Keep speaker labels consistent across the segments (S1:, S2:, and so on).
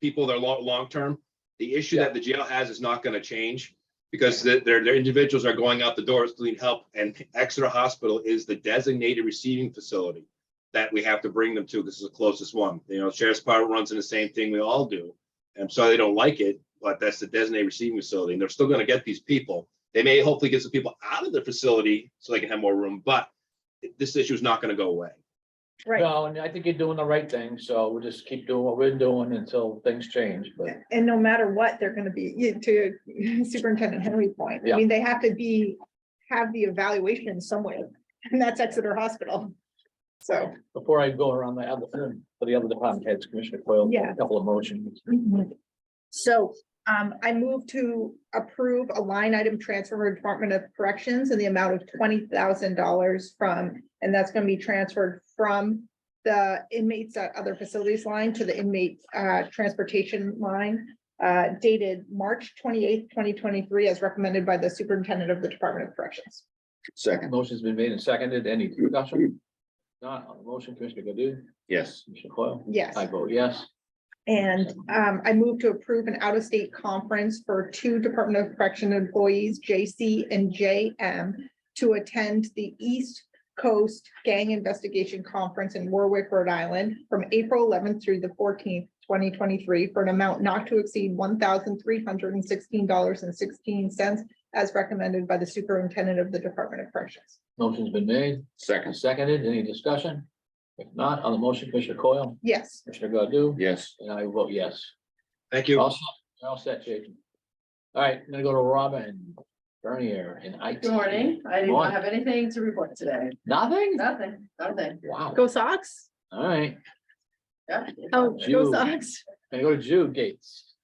S1: people that are long, long-term, the issue
S2: Yeah.
S1: that the jail has is not gonna change. Because the- their, their individuals are going out the doors to need help and Exeter Hospital is the designated receiving facility. That we have to bring them to, this is the closest one, you know, Sheriff's Department runs in the same thing we all do. And so they don't like it, but that's the designated receiving facility and they're still gonna get these people. They may hopefully get some people out of the facility so they can have more room, but this issue is not gonna go away.
S3: Right,
S2: No, and I think you're doing the right thing, so we'll just keep doing what we're doing until things change, but
S3: and no matter what, they're gonna be, you- to Superintendent Henry's point, I
S2: Yeah.
S3: mean, they have to be, have the evaluation somewhere, and that's Exeter Hospital. So,
S2: before I go around the other, for the other department heads, Commissioner Coyle,
S3: Yeah.
S2: a couple of motions.
S3: Mm-hmm. so, um, I move to approve a line item transfer for Department of Corrections in the amount of twenty thousand dollars from, and that's gonna be transferred from the inmates at other facilities line to the inmate, uh, transportation line, uh, dated March twenty-eighth, twenty twenty-three, as recommended by the Superintendent of the Department of Corrections.
S4: Second,
S2: Motion's been made and seconded, any discussion? Not on the motion, Commissioner Godu,
S4: yes,
S2: Commissioner Coyle,
S3: Yes.
S2: I vote yes.
S3: And um, I move to approve an out-of-state conference for two Department of Correction employees, JC and JM, to attend the East Coast Gang Investigation Conference in Warwick, Rhode Island, from April eleventh through the fourteenth, twenty twenty-three, for an amount not to exceed one thousand three hundred and sixteen dollars and sixteen cents, as recommended by the Superintendent of the Department of Corrections.
S2: Motion's been made and
S4: second,
S2: seconded, any discussion? If not, on the motion, Commissioner Coyle,
S3: Yes,
S2: Commissioner Godu,
S4: yes,
S2: and I vote yes.
S1: Thank you.
S2: All set, you're all set, Jason. All right, I'm gonna go to Robin Bernier in IT.
S5: Good morning. I do
S2: Morning.
S5: not have anything to report today.
S2: Nothing?
S5: Nothing, nothing.
S2: Wow,
S3: go Sox?
S2: all right,
S5: Yeah.
S3: Oh,
S2: Jude.
S3: go Sox.
S2: I go to Jude Gates.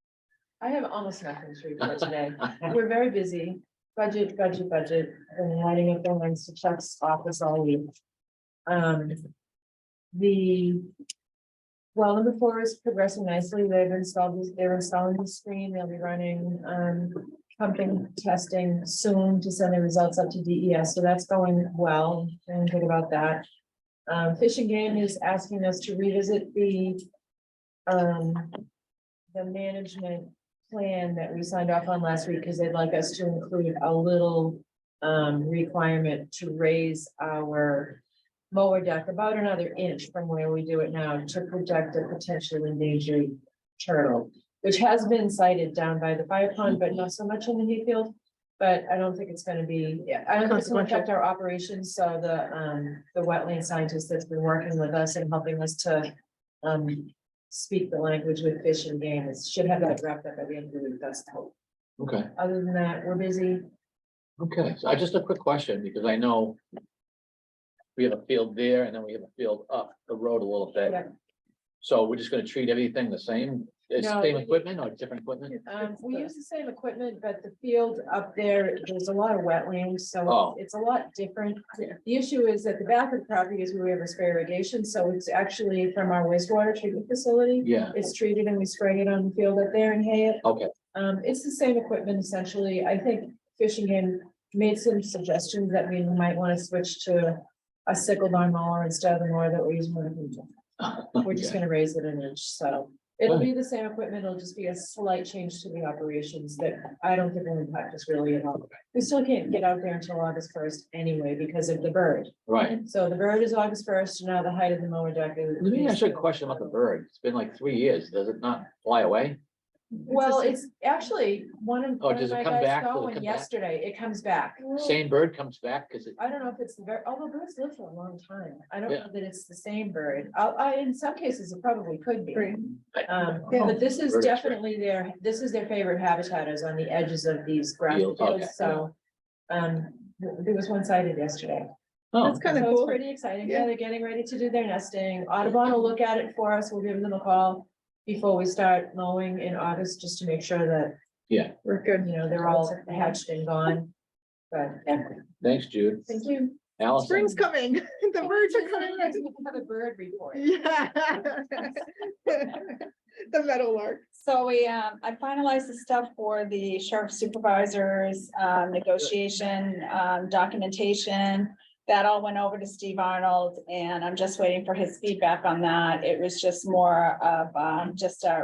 S5: I have almost nothing to report today. We're very busy. Budget, budget, budget, and lining up the lines to Chuck's office all week. Um, the well number four is progressing nicely. They've installed, this- they're installing the screen. They'll be running, um, pumping testing soon to send the results up to DES. So that's going well. And good about that. Um, Fish and Game is asking us to revisit the, um, the management plan that we signed off on last week, because they'd like us to include a little um requirement to raise our mower deck about another inch from where we do it now to protect a potentially endangered turtle, which has been cited down by the fire pond, but not so much in the Hayfield. But I don't think it's gonna be, yeah, I don't think it's gonna affect our operations, so the um, the wetland scientist that's been working with us and helping us to um speak the language with fish and game, it should have that wrapped up at the end of the week, that's the hope.
S2: Okay,
S5: Other than that, we're busy,
S2: okay, so I just a quick question, because I know. We have a field there and then we have a field up the road a little bit.
S5: Yeah.
S2: So we're just gonna treat everything the same, it's
S5: No,
S2: same
S5: we-
S2: equipment or different equipment?
S5: Um, we use the same equipment, but the field up there, there's a lot of wetlands,
S2: Oh.
S5: so it's a lot different. The issue is that the back of the property is where we have a spray irrigation, so it's actually from our wastewater treatment facility.
S2: Yeah,
S5: It's treated and we spray it on the field up there and hay it.
S2: okay,
S5: Um, it's the same equipment essentially. I think Fishing Game made some suggestions that we might want to switch to a sickle barn mower instead of the mower that we're using. with the- We're just
S2: Okay.
S5: gonna raise it an inch, so it'll be the same equipment. It'll just be a slight change to the operations that I don't think will impact us really at all. We still can't get out there until August first anyway because of the bird.
S2: right.
S5: So the bird is August first, and now the height of the mower deck is.
S2: Let me ask you a question about the bird, it's been like three years, does it not fly away?
S5: Well, it's actually one of.
S2: Oh,
S5: one of
S2: does it
S5: my
S2: come
S5: guys
S2: back?
S5: got
S2: Does it
S5: one
S2: come back?
S5: Yesterday, it comes back.
S2: Same bird comes back, cause it,
S5: I don't know if it's the very, although birds live for a long time. I don't
S2: Yeah.
S5: know that it's the same bird. I, I, in some cases, it probably could be.
S3: Great.
S5: Um,
S3: Yeah.
S5: but this is
S2: Bird is great.
S5: definitely their, this is their favorite habitat is on the edges of these grass
S2: Fields, okay.
S5: fields, so. Um, th- there was one sighted yesterday.
S2: oh,
S3: That's kind of
S5: So it's
S3: cool.
S5: Pretty exciting.
S3: Yeah.
S5: Yeah, they're getting ready to do their nesting. Audubon will look at it for us. We'll give them a call before we start mowing in August, just to make sure that,
S3: We're good.
S5: you know, they're all hatched and gone. But, yeah,
S2: thanks, Jude.
S5: thank you.
S2: Allison,
S3: Spring's coming. The birds are coming. back.
S5: Have a bird report.
S3: Yeah. The meadowlark.
S6: So we, um, I finalized the stuff for the sheriff supervisors, um, negotiation, um, documentation. That all went over to Steve Arnold and I'm just waiting for his feedback on that. It was just more of, um, just a